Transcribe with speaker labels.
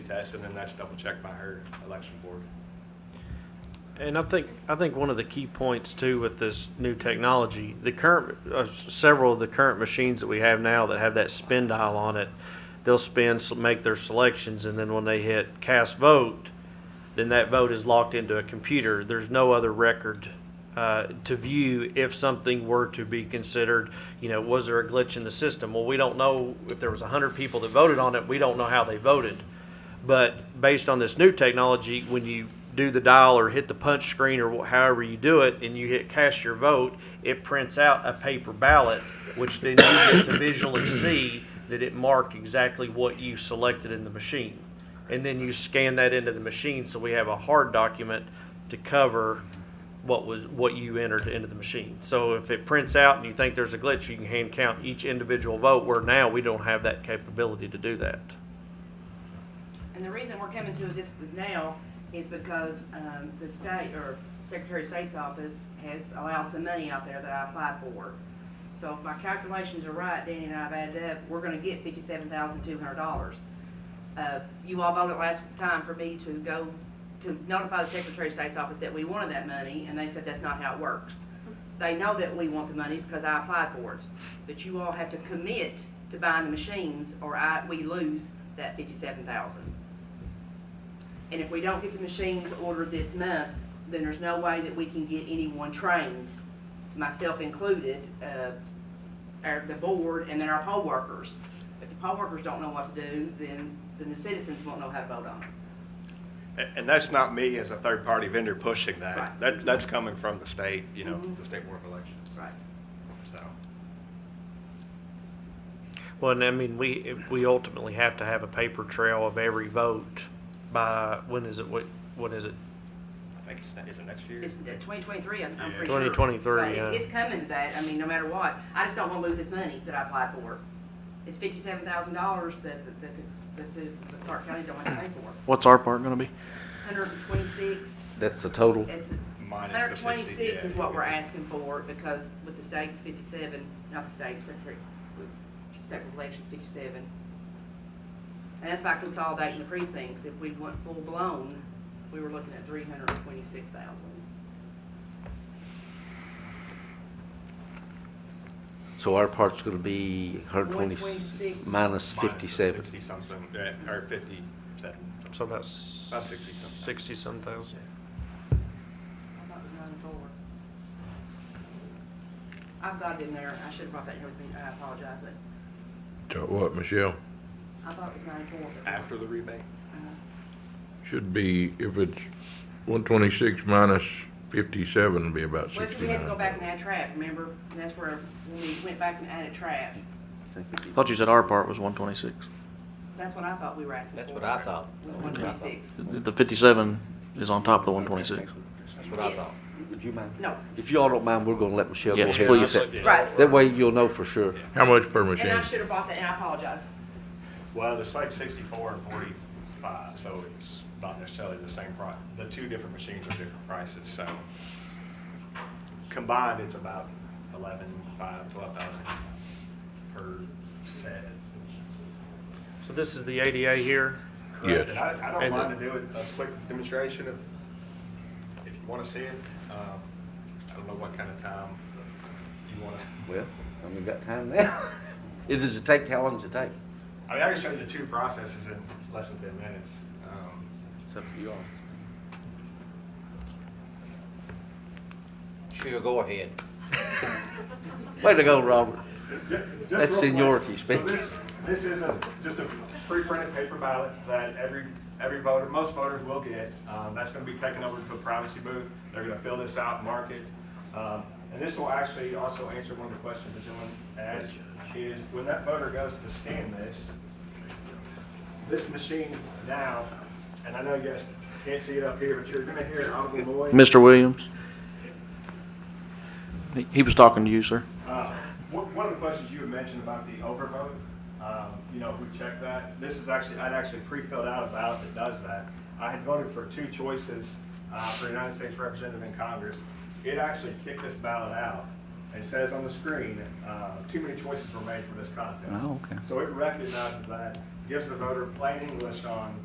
Speaker 1: test, and then that's double checked by her election board.
Speaker 2: And I think, I think one of the key points too with this new technology, the current, uh, several of the current machines that we have now that have that spin dial on it, they'll spin, s- make their selections, and then when they hit cast vote, then that vote is locked into a computer. There's no other record uh, to view if something were to be considered, you know, was there a glitch in the system? Well, we don't know if there was 100 people that voted on it, we don't know how they voted. But based on this new technology, when you do the dial or hit the punch screen or wh- however you do it, and you hit cast your vote, it prints out a paper ballot, which then you get to visually see that it marked exactly what you selected in the machine. And then you scan that into the machine, so we have a hard document to cover what was, what you entered into the machine. So if it prints out and you think there's a glitch, you can hand count each individual vote, where now we don't have that capability to do that.
Speaker 3: And the reason we're coming to this now is because um, the state, or Secretary of State's office has allowed some money out there that I applied for. So if my calculations are right, Danny and I have added up, we're gonna get fifty-seven thousand two hundred dollars. Uh, You all voted last time for me to go, to notify the Secretary of State's office that we wanted that money, and they said that's not how it works. They know that we want the money because I applied for it, but you all have to commit to buying the machines, or I, we lose that fifty-seven thousand. And if we don't get the machines ordered this month, then there's no way that we can get anyone trained, myself included, uh, our, the board, and then our poll workers. If the poll workers don't know what to do, then, then the citizens won't know how to vote on it.
Speaker 1: A- And that's not me as a third-party vendor pushing that.
Speaker 3: Right.
Speaker 1: That, that's coming from the state, you know,
Speaker 3: Mhm.
Speaker 1: the State Board of Elections,
Speaker 3: Right.
Speaker 1: so.
Speaker 2: Well, and I mean, we, we ultimately have to have a paper trail of every vote by, when is it, what, when is it?
Speaker 1: I think it's, ne- is it next year?
Speaker 3: It's uh, twenty twenty-three, I'm, I'm
Speaker 1: Yeah.
Speaker 3: pretty sure.
Speaker 2: 2023,
Speaker 3: So it's-
Speaker 2: yeah.
Speaker 3: It's coming to that, I mean, no matter what, I just don't wanna lose this money that I applied for. It's fifty-seven thousand dollars that, that, that the citizens of Clark County don't have to pay for.
Speaker 4: What's our part gonna be?
Speaker 3: Hundred and twenty-six.
Speaker 4: That's the total.
Speaker 3: It's,
Speaker 1: Minus the
Speaker 3: hundred
Speaker 1: 60,
Speaker 3: twenty-six
Speaker 1: yeah.
Speaker 3: is what we're asking for, because with the state's fifty-seven, not the state, Secretary, with state regulations fifty-seven. And that's by consolidating the precincts, if we went full-blown, we were looking at three hundred and twenty-six thousand.
Speaker 4: So our part's gonna be hundred twenty,
Speaker 3: 126.
Speaker 4: minus
Speaker 1: Minus the
Speaker 4: fifty-seven.
Speaker 1: Sixty-something, yeah, or fifty-seven.
Speaker 2: So about.
Speaker 1: About 60 something.
Speaker 2: Sixty-some thousand.
Speaker 3: I thought it was nine four. I've got it in there, I should have brought that here with me, I apologize, but
Speaker 5: So What, Michelle?
Speaker 3: I thought it was nine four.
Speaker 1: After the rebate?
Speaker 5: Should be, if it's one twenty-six minus fifty-seven, it'd be about
Speaker 3: Well, see, we had to go back and
Speaker 5: sixty-nine.
Speaker 3: add trap, remember, And that's where we went back and added trap,
Speaker 6: Thought you said our part was one twenty-six.
Speaker 3: that's what I thought we were asking for.
Speaker 7: That's what I thought.
Speaker 3: Was one twenty-six.
Speaker 6: The fifty-seven is on top of the one twenty-six.
Speaker 7: That's what I
Speaker 3: Yes.
Speaker 7: thought.
Speaker 4: Would you mind?
Speaker 3: No,
Speaker 4: If y'all don't mind, we're gonna let Michelle go
Speaker 6: Yes,
Speaker 4: ahead.
Speaker 6: please.
Speaker 3: right,
Speaker 4: That way you'll know for sure.
Speaker 5: How much per
Speaker 3: and
Speaker 5: machine?
Speaker 3: I should have bought that, and I apologize,
Speaker 1: Well, there's like sixty-four and forty-five, so it's not necessarily the same price. The two different machines are different prices, so combined, it's about eleven, five, twelve thousand per set.
Speaker 2: So this is the ADA here.
Speaker 5: Yes.
Speaker 1: And I, I don't
Speaker 2: And
Speaker 1: mind to do it, a quick demonstration if, if you wanna see it. Um, I don't know what kind of time you wanna,
Speaker 4: Well, and we've got time now. Is it to take, how long does it take?
Speaker 1: I mean, I can show you the two processes in less than ten minutes. Um,
Speaker 4: It's up to y'all.
Speaker 7: Sure, go ahead.
Speaker 4: Way to go, Robert.
Speaker 1: Just
Speaker 4: That's
Speaker 1: real
Speaker 4: seniority
Speaker 1: quick.
Speaker 4: speak.
Speaker 1: So this, this is a, just a pre-printed paper ballot that every, every voter, most voters will get. Um, that's gonna be taken over to a privacy booth. They're gonna fill this out, mark it. Um, and this will actually also answer one of the questions the gentleman asked, is when that voter goes to scan this, this machine now, and I know you guys can't see it up here, but you're gonna hear an audible noise.
Speaker 6: Mr. Williams? He- He was talking to you, sir.
Speaker 1: Uh, One one of the questions you had mentioned about the overvote, um, you know, who checked that? This is actually, I'd actually pre-filled out a ballot that does that. I had voted for two choices uh, for United States Representative in Congress. It actually kicked this ballot out. It says on the screen, uh, too many choices were made for this contest.
Speaker 6: Oh, okay.
Speaker 1: So it recognizes that, gives the voter plain English on